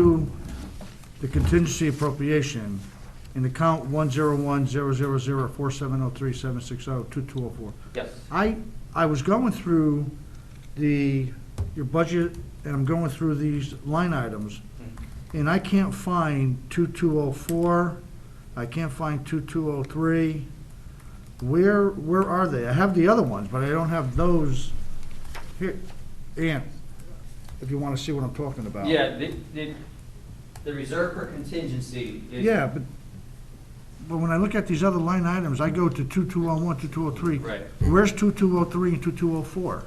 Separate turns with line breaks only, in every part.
to the contingency appropriation in account one zero one zero zero zero four seven oh three seven six oh two two oh four.
Yes.
I, I was going through the, your budget, and I'm going through these line items, and I can't find 2204, I can't find 2203. Where, where are they? I have the other ones, but I don't have those. Here, Ian, if you want to see what I'm talking about.
Yeah, the, the, the reserve for contingency is.
Yeah, but, but when I look at these other line items, I go to 2201, 2203.
Right.
Where's 2203 and 2204?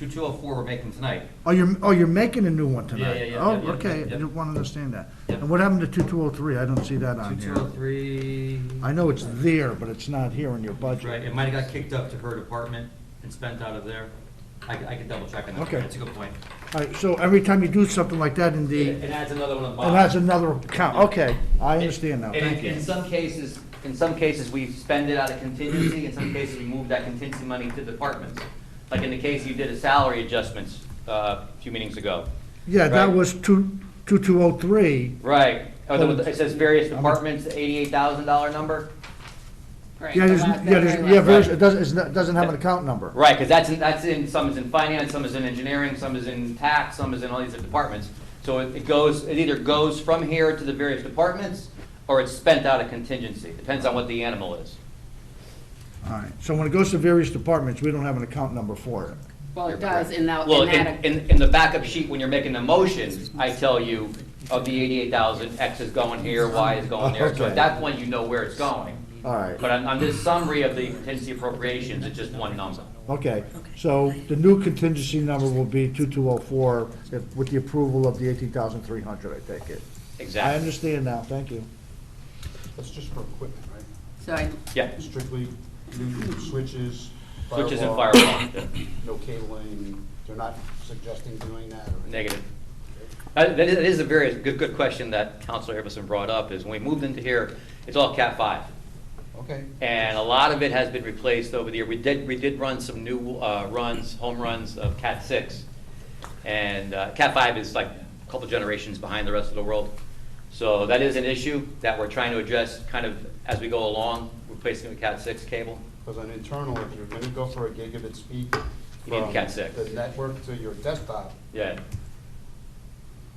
Two two oh four we're making tonight.
Oh, you're, oh, you're making a new one tonight?
yeah, yeah, yeah,
Oh,
yeah,
okay, I
yeah.
didn't want to understand that.
Yeah.
And what happened to 2203? I don't see that
Two
on
two
here.
oh three,
I know it's there, but it's not here in your
right,
budget.
it might have got kicked up to her department and spent out of there. I, I could double check on that.
Okay.
That's a good point.
All right, so every time you do something like that in the,
It adds another one on the
and
bottom.
that's another account, okay, I understand now,
And
thank
in- In
you.
some cases, in some cases, we spend it out of contingency, in some cases, we move that contingency money to departments. Like in the case you did a salary adjustments, uh, a few meetings ago.
Yeah, that
Right.
was 2, 2203,
Right, Oh,
But-
it says various departments, eighty-eight thousand dollar number?
Right,
yeah,
the
there's,
last-
yeah,
that
there's,
very
yeah,
last-
there's- it doesn't, it's not- doesn't have an account number.
Right, because that's in, that's in, some is in finance, some is in engineering, some is in tax, some is in all these other departments. So it it goes, it either goes from here to the various departments, or it's spent out of contingency, depends on what the animal is.
All right, so when it goes to various departments, we don't have an account number for it.
Well, it does in that,
Well,
in
in,
that,
in, in the backup sheet, when you're making the motion, I tell you, of the eighty-eight thousand, X is going here, Y is going there. So
Okay.
at that point, you know where it's going.
All right.
But on, on this summary of the contingency appropriations, it's just one number.
Okay, so the new contingency number will be 2204 if- with the approval of the 18,300, I take it. I
Exactly.
understand now, thank you.
That's just for equipment, right?
so I,
Yeah,
Strictly new switches.
switches and
firewall,
firewall, yeah.
No cabling, they're not suggesting doing that or? anything?
Negative. Uh, That is, that is a very good, good question that Counselor Iverson brought up, is when we moved into here, it's all Cat five.
Okay.
And a lot of it has been replaced over the year. We did, we did run some new uh, runs, home runs of Cat six. And uh, Cat five is like a couple generations behind the rest of the world. So that is an issue that we're trying to address kind of as we go along, replacing the Cat six cable.
Because on internal, if you're gonna go for a gigabit speed.
You need
from
Cat six.
The network to your desktop,
Yeah.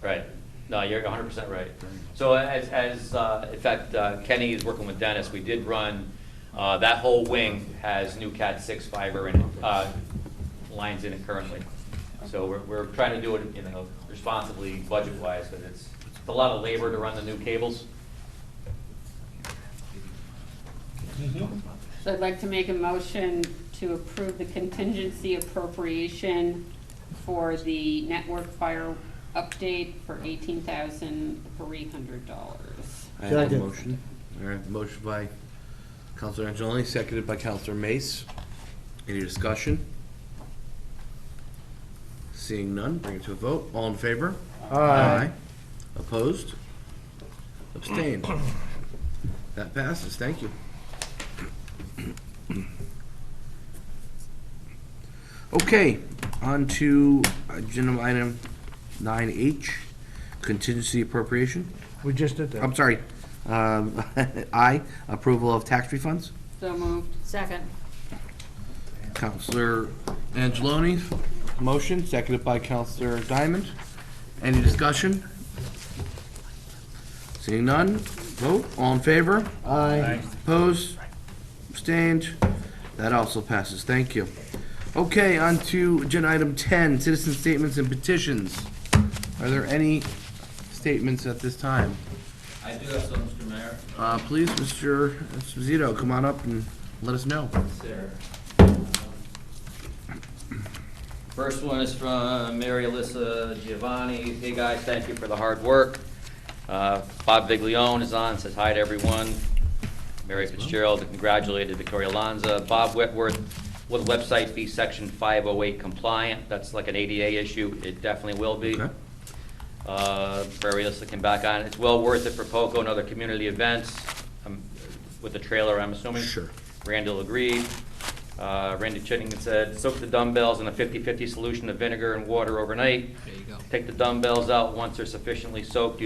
Right. No, you're hundred percent right. So as, as, uh, in fact, uh, Kenny is working with Dennis, we did run, uh, that whole wing has new Cat six fiber and, uh, lines in it currently. So we're, we're trying to do it, you know, responsibly, budget-wise, because it's, it's a lot of labor to run the new cables.
so I'd like to make a motion to approve the contingency appropriation for the network fire update for eighteen thousand three hundred dollars.
I have a
Second.
motion. All right, motion by Counselor Angeloni, seconded by Counselor Mace. Any discussion? Seeing none, bring it to a vote. All in favor? Opposed? Abstained? That passes, thank you. Okay, on to agenda item nine H, contingency appropriation.
We just did that.
I'm sorry, um, I, approval of tax refunds.
So moved.
Second.
Counselor Angeloni, motion, seconded by Counselor Diamond. Any discussion? Seeing none, vote, all in favor?
Aye.
Opposed? Abstained? That also passes, thank you. Okay, on to agenda item 10, citizen statements and petitions. Are there any statements at this time?
I do have some, Mr. Mayor.
Uh, please, Mr. Zito, come on up and let us know.
It's there.
First one is from Mary Alyssa Giovanni. Hey, guys, thank you for the hard work. Uh, Bob Viglione is on, says hi to everyone. Mary Fitzgerald congratulated Victoria Alonso. Bob Whitworth, will the website be section 508 compliant? That's like an ADA issue. It definitely will be.
Okay.
Uh, Mary Alyssa came back on. It's well worth it for POCO and other community events um, with the trailer, I'm assuming.
Sure.
Randall agreed. Uh, Randy Chittenden said, soak the dumbbells in a 50/50 solution of vinegar and water overnight.
There you go.
Take the dumbbells out once they're sufficiently soaked,